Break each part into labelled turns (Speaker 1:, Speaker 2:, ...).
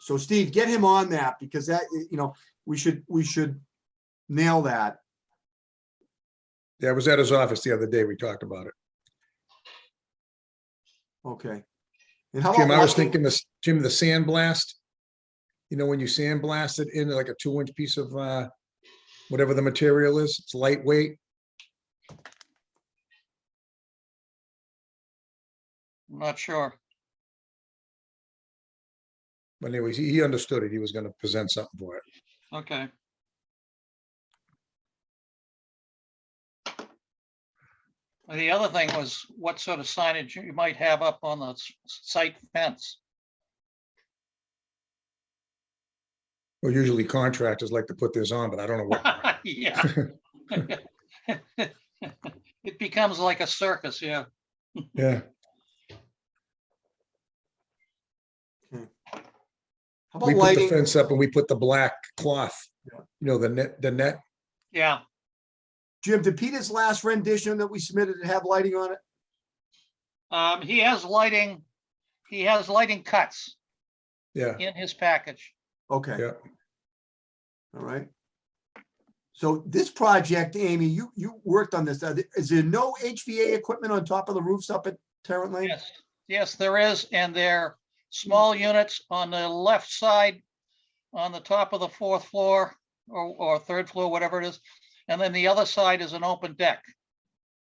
Speaker 1: So Steve, get him on that because that, you know, we should, we should nail that.
Speaker 2: Yeah, I was at his office the other day. We talked about it.
Speaker 1: Okay. And
Speaker 3: Oh,
Speaker 1: how
Speaker 2: Jim, I
Speaker 1: about
Speaker 2: was
Speaker 1: Russell?
Speaker 2: thinking this, Jim, the sandblast. You know, when you sandblast it into like a two inch piece of uh, whatever the material is, it's lightweight.
Speaker 3: I'm not sure.
Speaker 2: But anyways, he, he understood it. He was gonna present something for it.
Speaker 3: Okay. The other thing was what sort of signage you might have up on the s- site fence.
Speaker 2: Well, usually contractors like to put this on, but I don't know what.
Speaker 3: Yeah. It becomes like a circus, yeah.
Speaker 2: Yeah,
Speaker 1: How about
Speaker 2: we put the
Speaker 1: lighting?
Speaker 2: fence up and we put the black cloth, you know, the net, the net.
Speaker 3: Yeah,
Speaker 1: Jim, did Peter's last rendition that we submitted have lighting on it?
Speaker 3: um, he has lighting, he has lighting cuts
Speaker 2: Yeah,
Speaker 3: in his package.
Speaker 1: Okay.
Speaker 2: Yeah.
Speaker 1: All right. So this project, Amy, you, you worked on this. Are there- Is there no HVA equipment on top of the roofs up at Tarrant Lane?
Speaker 3: Yes, yes, there is, and they're small units on the left side, on the top of the fourth floor, or, or third floor, whatever it is. And then the other side is an open deck.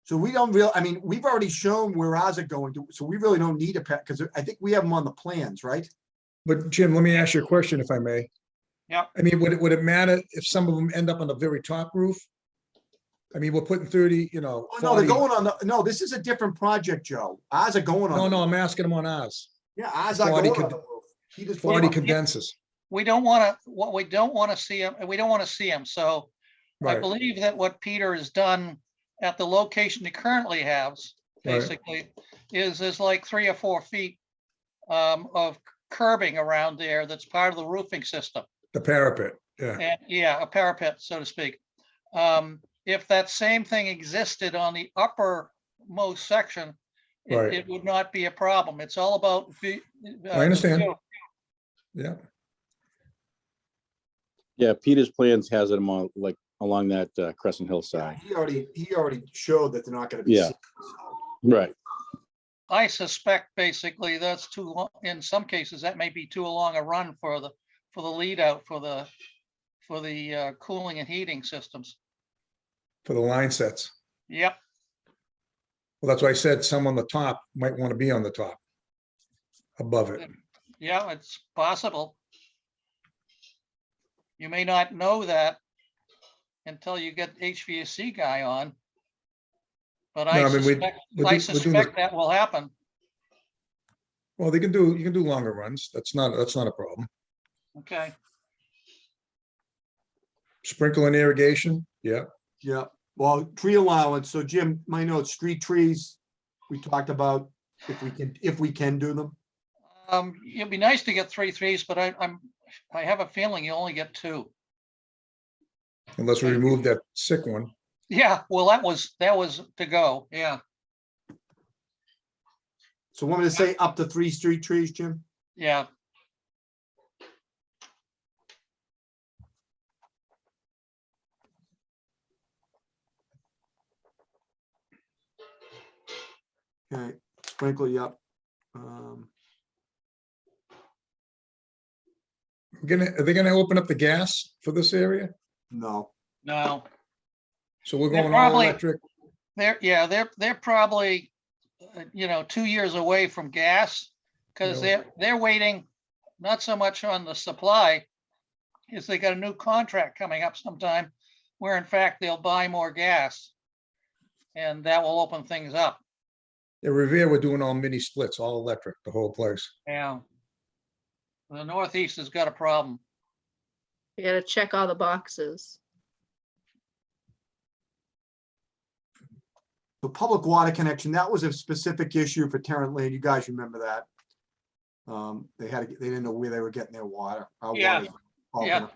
Speaker 1: So we don't real, I mean, we've already shown where ours are going to, so we really don't need a pet, because I think we have them on the plans, right?
Speaker 2: but Jim, let me ask you a question if I may.
Speaker 3: Yeah.
Speaker 2: I mean, would it, would it matter if some of them end up on the very top roof? I mean, we're putting thirty, you know.
Speaker 1: Oh, no, they're
Speaker 2: 40
Speaker 1: going on the, no, this is a different project, Joe. Ours are going on.
Speaker 2: No,
Speaker 1: the-
Speaker 2: no, I'm asking them on ours.
Speaker 1: Yeah, ours are
Speaker 2: Forty
Speaker 1: going on
Speaker 2: could-
Speaker 1: the roof. He just put
Speaker 2: Forty
Speaker 1: them on-
Speaker 2: condensers,
Speaker 3: We don't want to, what we don't want to see, 'em- we don't want to see them, so I
Speaker 2: right?
Speaker 3: believe that what Peter has done at the location he currently has,
Speaker 2: Right.
Speaker 3: basically, is there's like three or four feet um, of curbing around there that's part of the roofing system.
Speaker 2: The parapet, yeah,
Speaker 3: And yeah, a parapet, so to speak. Um, if that same thing existed on the uppermost section, it,
Speaker 2: Right.
Speaker 3: it would not be a problem. It's all about. vi- uh, the
Speaker 2: understand.
Speaker 3: view.
Speaker 2: yeah.
Speaker 4: Yeah, Peter's plans has it along, like, along that uh, Crescent Hill side.
Speaker 1: He already, he already showed that they're not gonna be.
Speaker 4: Yeah.
Speaker 1: seen, so.
Speaker 4: Right.
Speaker 3: I suspect basically that's too, lo- in some cases, that may be too long a run for the, for the lead out for the, for the uh, cooling and heating systems.
Speaker 2: For the line sets.
Speaker 3: Yep,
Speaker 2: Well, that's why I said some on the top might want to be on the top. Above it.
Speaker 3: yeah, it's possible. You may not know that until you get HVAC guy on. But
Speaker 2: No,
Speaker 3: I
Speaker 2: I mean, we-
Speaker 3: suspect,
Speaker 2: we're do-
Speaker 3: I
Speaker 2: we're doing the-
Speaker 3: suspect that will happen.
Speaker 2: Well, they can do, you can do longer runs. That's not, that's not a problem.
Speaker 3: Okay,
Speaker 2: Sprinkle and irrigation, yeah.
Speaker 1: Yeah, well, tree allowance, so Jim, my notes, street trees, we talked about if we can, if we can do them.
Speaker 3: um, it'd be nice to get three threes, but I, I'm, I have a feeling you only get two.
Speaker 2: Unless we
Speaker 3: Right.
Speaker 2: remove that sick one.
Speaker 3: Yeah, well, that was, that was to go, yeah,
Speaker 1: So want me to say up to three street trees, Jim?
Speaker 3: yeah.
Speaker 1: Okay, sprinkle, yep. Um,
Speaker 2: We're gonna, are they gonna open up the gas for this area?
Speaker 1: no,
Speaker 3: No,
Speaker 2: So we're
Speaker 3: They're
Speaker 2: going all
Speaker 3: probably-
Speaker 2: electric.
Speaker 3: they're, yeah, they're, they're probably, uh, you know, two years away from gas. Cause
Speaker 2: Yeah.
Speaker 3: they're, they're waiting, not so much on the supply, is they got a new contract coming up sometime where in fact they'll buy more gas. And that will open things up.
Speaker 2: At Revere, we're doing all mini splits, all electric, the whole place.
Speaker 3: Yeah. The Northeast has got a problem.
Speaker 5: You gotta check all the boxes.
Speaker 1: the public water connection, that was a specific issue for Tarrant Lane, you guys remember that? Um, they had, to- they didn't know where they were getting their water. our
Speaker 3: Yeah,
Speaker 1: water's all
Speaker 3: yeah.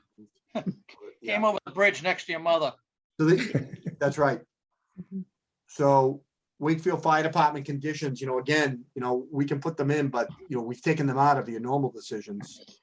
Speaker 1: connected. Yeah.
Speaker 3: Came over the bridge next to your mother.
Speaker 1: So they, that's right.
Speaker 5: Mhm.
Speaker 1: So Wakefield Fire Department conditions, you know, again, you know, we can put them in, but, you know, we've taken them out of your normal decisions.